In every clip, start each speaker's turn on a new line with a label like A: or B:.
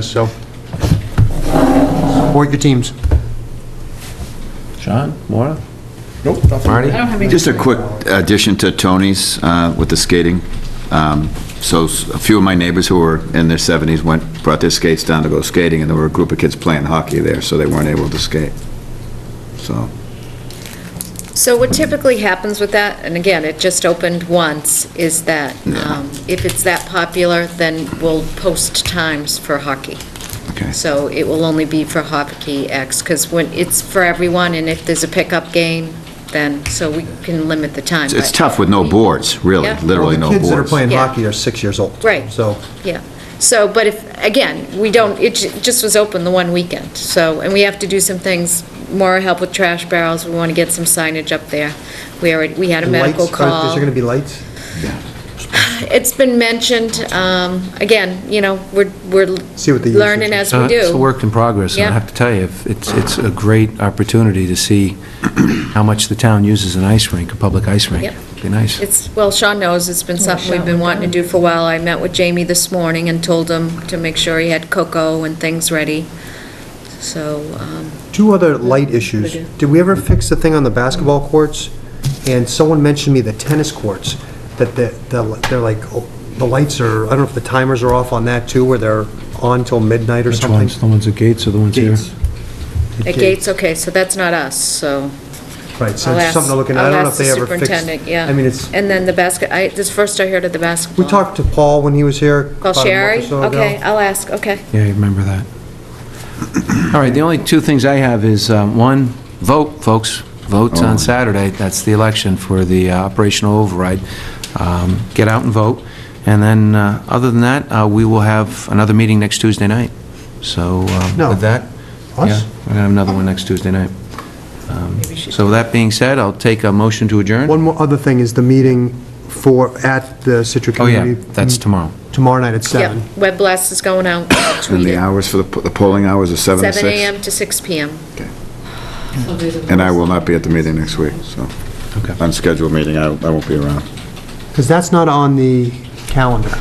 A: So, support your teams.
B: Sean, Maura?
A: Marty?
C: I don't have any.
D: Just a quick addition to Tony's uh, with the skating. Um, So s- a few of my neighbors who were in their 70s went, brought their skates down to go skating, and there were a group of kids playing hockey there, so they weren't able to skate. So,
E: So what typically happens with that, and again, it just opened once, is that um, if it's that popular, then we'll post times for hockey.
D: okay.
E: So it will only be for hockey X, because when, it's for everyone, and if there's a pickup game, then, so we can limit the time.
D: It's- It's
E: but-
D: tough with no boards, really,
E: Yeah.
D: literally no
A: Well, The kids that are
D: boards.
A: playing
E: Yeah.
A: hockey are six years old.
E: Right.
A: So,
E: Yeah, so, but if, again, we don't, it ju- just was open the one weekend, so, and we have to do some things, more help with trash barrels, we want to get some signage up there. We already, we had a medical
A: lights,
E: call.
A: are- is there going to be lights?
E: It's been mentioned, um, again, you know, we're, we're
A: See what the usage
E: learning as we
B: Uh, It's a
E: do.
B: work in progress, and I
E: Yeah.
B: have to tell you, if- it's, it's a great opportunity to see how much the town uses an ice rink, a public ice rink.
E: Yep.
B: Be nice.
E: It's, well, Sean knows, it's been something we've been wanting to do for a while. I met with Jamie this morning and told him to make sure he had cocoa and things ready, so, um,
A: Two other light issues.
E: do.
A: Did we ever fix the thing on the basketball courts? And someone mentioned to me the tennis courts, that the- the, they're like, oh, the lights are, I don't know if the timers are off on that too, where they're on till midnight or
B: Which
A: something?
B: ones, the ones at Gates or the ones here?
A: Gates.
E: at Gates, okay, so that's not us, so.
A: Right, so
E: I'll
A: it's
E: ask-
A: something to look at. I
E: I'll
A: don't know if
E: ask the
A: they ever fixed.
E: superintendent, yeah.
A: I mean, it's,
E: And then the basket, I, this first I heard of the basketball.
A: we talked to Paul when he was here.
E: Call
A: about a month or
E: Sherry?
A: so ago.
E: Okay, I'll ask, okay.
B: Yeah, I remember that. All right, the only two things I have is, um, one, vote, folks. Votes
A: Oh.
B: on Saturday, that's the election for the uh, operational override. Um, Get out and vote. And then, uh, other than that, uh, we will have another meeting next Tuesday night. So um,
A: No.
B: with that...
A: Us?
B: Yeah, we're going to have another one next Tuesday night. Um, So with that being said, I'll take a motion to adjourn.
A: One more other thing is the meeting for, at the Situate
B: Oh, yeah,
A: Community.
B: that's tomorrow.
A: Tomorrow night at
E: Yep,
A: seven.
E: web blast is going out, I'll
D: And
E: tweet
D: the
E: it.
D: hours for the, po- the polling hours are 7 to 6.
E: Seven AM to six PM.
D: And I will not be at the meeting next week, so,
B: Okay.
D: unscheduled meeting, I I won't be around.
A: Because that's not on the calendar,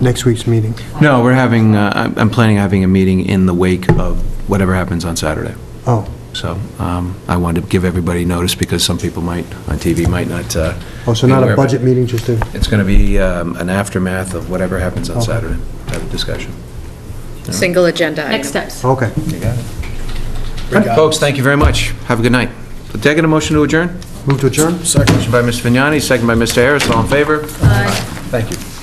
A: next week's meeting.
B: No, we're having, uh, I'm I'm planning on having a meeting in the wake of whatever happens on Saturday.
A: Oh,
B: So um, I wanted to give everybody notice because some people might, on TV, might not. uh,
A: oh, so
B: be
A: not
B: aware
A: a
B: of it.
A: budget meeting, just a,
B: It's going to be um, an aftermath of whatever happens on
A: Okay.
B: Saturday, have a discussion.
E: Single agenda item.
C: Next steps.
A: okay.
B: Folks, thank you very much. Have a good night. Did I get a motion to adjourn?
A: Move to adjourn?
B: Second. Motion by Ms. Vignani, second by Mr. Harris, all in favor? Aye. Thank you.